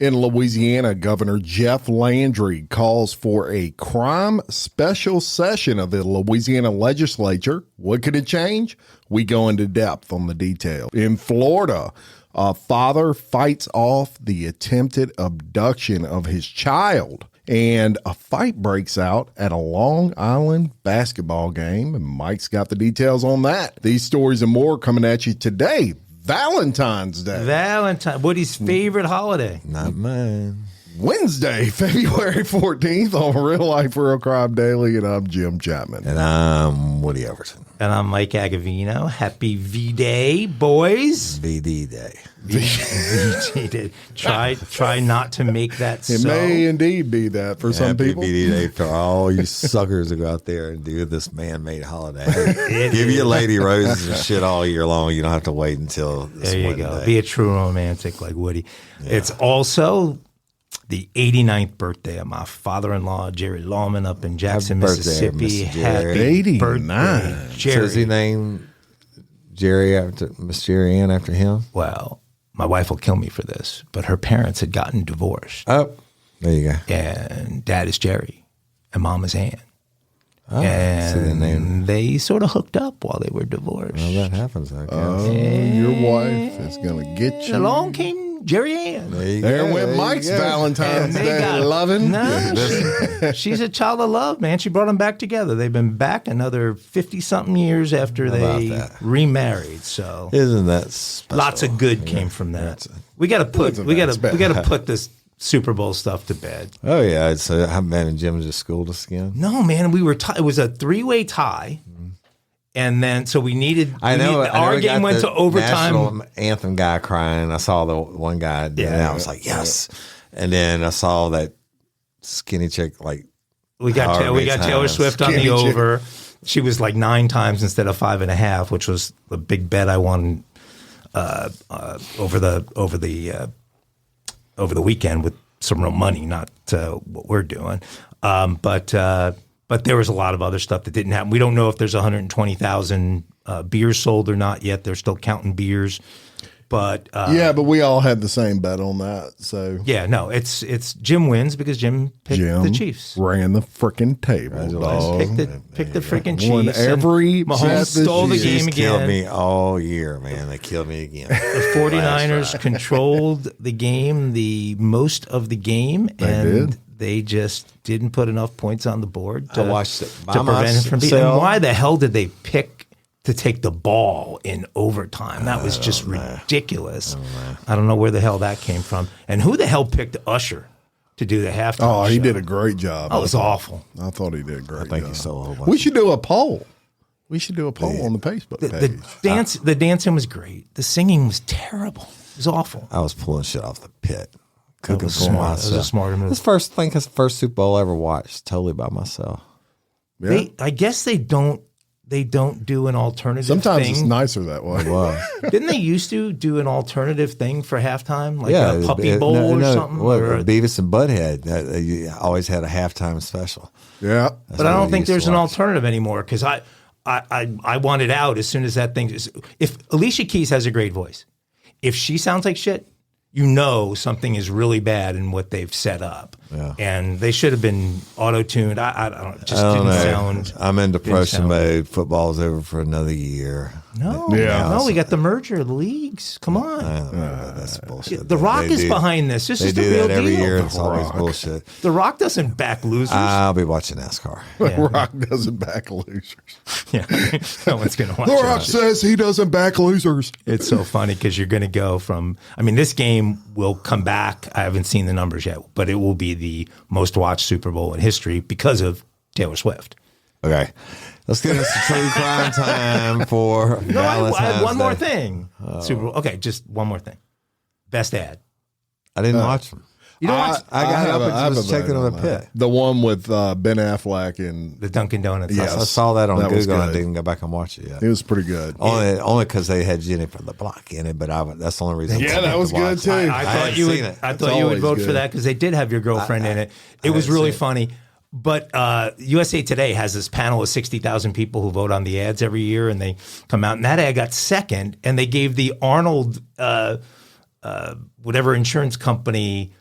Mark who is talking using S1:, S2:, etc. S1: In Louisiana, Governor Jeff Landry calls for a crime special session of the Louisiana legislature. What could it change? We go into depth on the detail. In Florida, a father fights off the attempted abduction of his child. And a fight breaks out at a Long Island basketball game. And Mike's got the details on that. These stories and more coming at you today, Valentine's Day.
S2: Valentine, Woody's favorite holiday.
S3: Not mine.
S1: Wednesday, February 14th on Real Life Real Crime Daily, and I'm Jim Chapman.
S3: And I'm Woody Everton.
S2: And I'm Mike Agavino. Happy V Day, boys.
S3: VD Day.
S2: Cheated. try try not to make that
S1: It
S2: so.
S1: may indeed be that for some
S3: Happy
S1: people.
S3: VD Day for all you suckers who go out there and do this man made holiday.
S2: It
S3: Give
S2: is-
S3: your lady roses and shit all year long. You don't have to wait until this
S2: There you
S3: one
S2: go.
S3: day.
S2: Be a true romantic like Woody. It's also the 89th birthday of my father-in-law Jerry Lawman up in Jackson,
S3: birthday,
S2: Mississippi.
S3: Mr. Jerry.
S2: Happy
S1: 89.
S2: birthday,
S3: So Does he
S2: Jerry.
S3: name Jerry after Miss Jerry Ann after him?
S2: Well, my wife will kill me for this, but her parents had gotten divorced.
S3: Oh, there you go.
S2: and dad is Jerry, and mom is Ann.
S3: Ah,
S2: and
S3: they
S2: they sort of hooked up while they were divorced.
S3: Well, that happens, I guess.
S1: Oh, your wife is going to get you.
S2: Along came Jerry Ann.
S3: you
S1: There
S3: go,
S1: went
S3: you
S1: Mike's
S3: go.
S1: Valentine's
S2: And they
S1: Day
S2: got-
S1: loving.
S2: No, she, she's a child of love, man. She brought them back together. They've been back another fifty something years after
S3: about
S2: they
S3: that?
S2: remarried. So
S3: Isn't that special?
S2: lots of good came from that. We got to put we got to we got to put this Super Bowl stuff to bed.
S3: Oh, yeah. So I've been in Jim's just schooled us again.
S2: No, man, we were. T- it was a three-way tie, and then so we needed.
S3: Mm-hmm. I
S2: we
S3: know
S2: needed-
S3: I know
S2: our
S3: we got
S2: game went
S3: the
S2: to overtime.
S3: national anthem guy crying. I saw the one guy, yeah, and I was like, yes. And then I saw that skinny chick, like,
S2: we got
S3: However
S2: Ta- we
S3: many
S2: got Taylor
S3: times.
S2: Swift on the
S1: Can't you-
S2: over. She was like nine times instead of five and a half, which was the big bet I won uh, uh, over the over the uh, over the weekend with some real money, not uh, what we're doing. Um, but uh, but there was a lot of other stuff that didn't happen. We don't know if there's 120,000 uh, beers sold or not yet. They're still counting beers, but uh,
S1: Yeah, but we all had the same bet on that. So
S2: yeah, no, it's it's Jim wins because Jim picked
S1: Jim
S2: the Chiefs.
S1: ran the freaking table, dog.
S2: Pick the pick the freaking
S1: Oh, Won
S2: Chiefs. and
S1: every bet
S2: Mahomes
S1: this
S2: stole the
S1: year.
S2: game
S3: she's killed
S2: again.
S3: me all year, man. They killed me again.
S2: The 49ers controlled the game the most of the game and
S1: did.
S2: they just didn't put enough points on the board to,
S3: I watched it by
S2: to prevent it from being.
S3: myself.
S2: And why the hell did they pick to take the ball in overtime? That was just ridiculous. I don't know where the hell that came from. And who the hell picked Usher to do the
S1: Oh,
S2: halftime?
S1: he
S2: show?
S1: did a great job.
S2: That was awful.
S1: I thought he did a great
S3: Thank
S1: job.
S3: you so much.
S1: We should do a poll. We should do a poll on the Facebook page.
S2: The dance, the dancing was great. The singing was terrible. It was awful.
S3: I was pulling shit off the pit, cooking
S2: was
S3: for
S2: smart. That was
S3: myself.
S2: a smarter move.
S3: This first thing, this first Super Bowl I ever watched, totally by myself.
S1: Yeah.
S2: They, I guess they don't. They don't do an alternative.
S1: Sometimes
S2: thing.
S1: it's nicer that way.
S3: Wow.
S2: Didn't they used to do an alternative thing for halftime, like
S3: yeah,
S2: a
S3: it-
S2: puppy
S3: it-
S2: bowl
S3: no,
S2: or
S3: no,
S2: something?
S3: What,
S2: or-
S3: Beavis and Butthead uh, uh, you always had a halftime special.
S1: Yeah.
S2: but I
S3: what
S2: don't
S3: I
S2: think
S3: used to
S2: there's an
S3: watch.
S2: alternative anymore because I, I, I, I want it out as soon as that thing. Is, if Alicia Keys has a great voice, if she sounds like shit, you know something is really bad in what they've set up, and they should have been auto tuned. I, I, I don't it just didn't sound.
S3: I'm in depression
S2: sound
S3: mode. Football's over for another year.
S2: No,
S1: Yeah.
S2: no, we got the merger of the leagues. Come on.
S3: I don't know about that's bullshit.
S2: The
S3: They-
S2: Rock
S3: they
S2: is
S3: do-
S2: behind this. This
S3: They
S2: is the
S3: do
S2: real
S3: that every
S2: deal.
S3: year.
S2: The
S3: and It's Uh, always
S1: Rock.
S3: bullshit.
S2: The Rock doesn't back losers.
S3: I'll be watching NASCAR.
S1: Rock doesn't back losers.
S2: yeah, no one's gonna watch
S1: The
S2: it.
S1: Rock says he doesn't back losers.
S2: It's so funny because you're gonna go from. I mean, this game will come back. I haven't seen the numbers yet, but it will be the most watched Super Bowl in history because of Taylor Swift.
S3: Okay, let's get us to true crime time for
S2: No, I, I
S3: Valentine's
S2: have one more
S3: Day.
S2: thing. Super Bowl. Okay, just one more thing. Best ad.
S3: I didn't watch them.
S2: Uh, You know what?
S3: I got
S1: have
S3: up
S1: a- I have
S3: and just
S1: a
S3: checked it
S1: vote
S3: on the
S1: that.
S3: pit.
S1: The one with uh, Ben Affleck and
S2: The Dunkin' Donuts.
S1: Yeah.
S3: I saw that on
S1: That was
S3: Google. and I
S1: good.
S3: didn't go back and watch it yet.
S1: it was pretty good.
S3: Only, only because they had Jenny from the Block in it, but I, that's the only reason. I
S1: Yeah, that
S3: wanted
S1: was
S3: to watch
S1: good too.
S3: it.
S2: I, I thought
S3: hadn't
S2: you would.
S3: seen it.
S2: I
S1: It's
S2: thought you would
S1: always
S2: vote for
S1: good.
S2: that because they did have your girlfriend in it. It was really funny. But uh, USA Today has this panel of sixty thousand people who vote on the ads every year, and they come out. And that ad got second, and they gave the Arnold, uh, uh, whatever insurance company,